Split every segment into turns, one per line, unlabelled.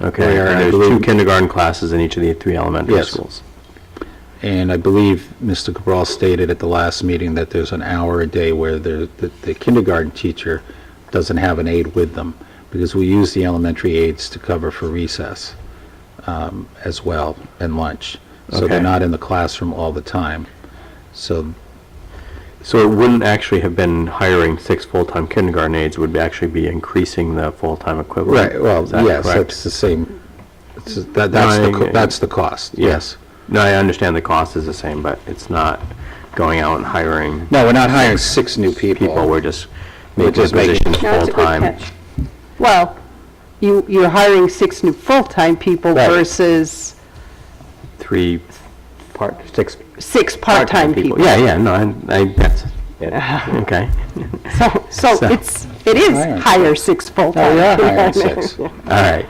Okay,
Where I
and there's two
believe-
kindergarten classes in each of the three elementary
Yes.
schools.
And I believe Mr. Cabral stated at the last meeting that there's an hour a day where the, the- the kindergarten teacher doesn't have an aide with them, because we use the elementary aides to cover for recess um, as well, and lunch. So they're
Okay.
not in the classroom all the time. So,
So it wouldn't actually have been hiring six full-time kindergarten aides, it would actually be increasing the full-time equivalent.
right, well,
Is that
yes,
correct?
that's the same, it's- that, that's the, co-
Nine-
that's the cost, yes.
No, I understand the cost is the same, but it's not going out and hiring
No, we're not hiring six new people.
people, we're just
We're
making the
just making-
positions
That's a good
full-time.
catch. Well, you, you're hiring six new full-time people
Right.
versus
Three part, six
six part-time people.
Yeah, yeah, no, I, I, that's, yeah, okay.
So, so
So-
it's, it is
Hiring.
hire six
Oh,
full-time.
we are hiring
people.
six.
All right.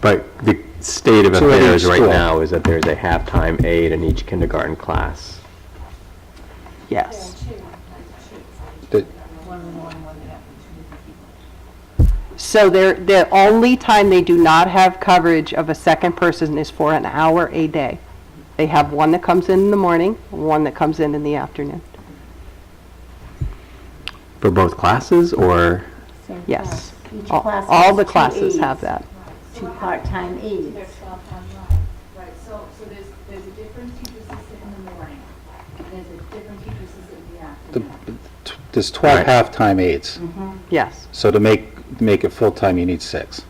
But the state of
Two at
affairs
each
right
school.
now is that there's a halftime aide in each kindergarten class.
Yes.
The-
So they're, the only time they do not have coverage of a second person is for an hour a day. They have one that comes in in the morning, one that comes in in the afternoon.
For both classes or,
Same
Yes.
class. uh, Each
All
class
all
has
the
two
classes have
aides,
that.
Two part-time aides.
They're twelve on line. Right, so, so there's, there's a different teacher assistant in the morning, and there's a different teacher assistant in the afternoon.
t- There's 12
Right.
half-time aides.
Yes.
So to make, make it full-time, you need six.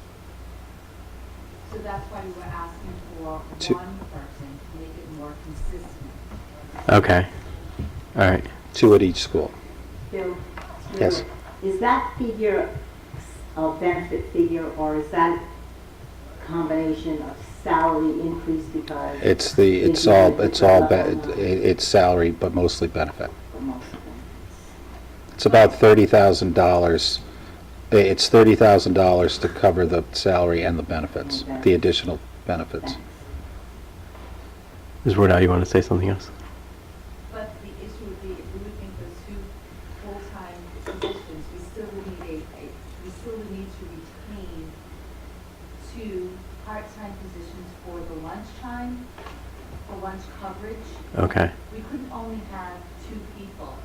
So that's why we were asking for one
Two.
person to make it more consistent.
okay. All right.
Two at each school.
Bill,
Yes.
Is that figure a benefit figure, or is that combination of salary increase because?
It's the, it's all, it's all, be- it- it's salary, but mostly benefit. It's about $30,000. Eh, It's $30,000 to cover the salary and the benefits, the additional benefits.
Ms. Wardell, you want to say something else?
But the issue would be, if we were looking for two full-time positions, we still would need a, a, we still would need to retain two part-time positions for the lunchtime, for lunch coverage,
Okay.
we couldn't only have two people,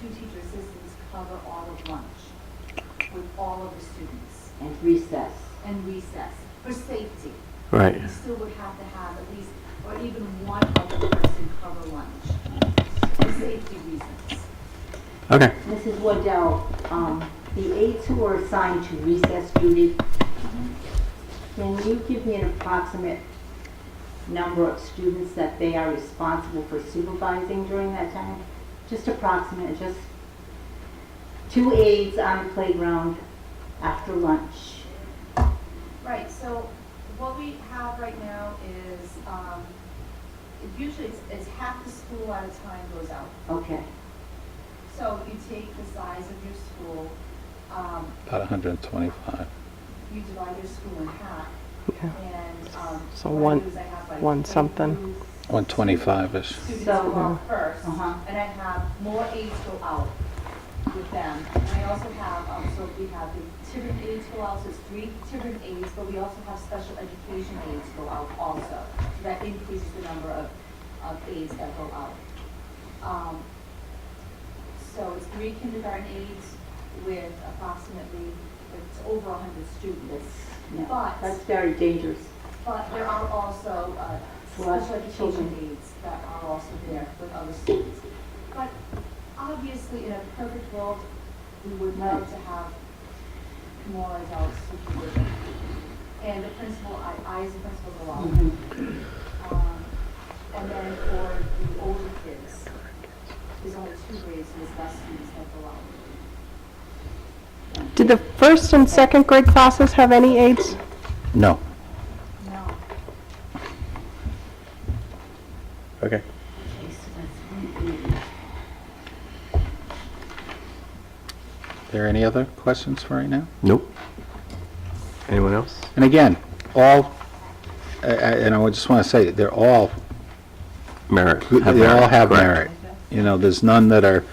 two teacher assistants cover all of lunch with all of the students
And recess.
and recess for safety.
Right.
We still would have to have at least, or even one other person cover lunch for safety reasons.
Okay.
Mrs. Waddell, um, the aides who are assigned to recess duty, can you give me an approximate number of students that they are responsible for supervising during that time? Just approximate, just two aides on the playground after lunch.
Right, so what we have right now is, um, it usually it's, it's half the school at a time goes out.
Okay,
So you take the size of your school, um,
About 125.
you divide your school in half,
Yeah.
and, um.
So
what I
one-
do is I have, like,
one something.
22
125-ish.
Students
So-
go out first,
Uh-huh.
and I have more aides go out with them. And I also have, um, so we have the different aides go out, so it's three different aides, but we also have special education aides go out also. So that increases the number of, of aides that go out. Um, so it's three kindergarten aides with approximately, it's over hundred students.
yeah,
But-
that's very dangerous.
But there are also uh,
Well,
special education
children.
needs that are also there with other students. But obviously, in a perfect world, we would love to have more adult supervision. And the principal, I, I as a principal go out.
Mhm.
Um, And then for the older kids, there's only two grades, so there's less students that go out.
Did the first and second grade classes have any aides?
No.
No.
Okay.
Okay, so that's one aide.
There any other questions for right now?
Nope. Anyone else?
And again, all, I- I- and I just want to say, they're all
Merit.
They
Have
all have
correct.
merit. You know, there's none that are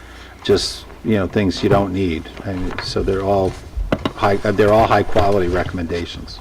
just, you know, things you don't need. And so they're all high, uh, they're all high-quality recommendations.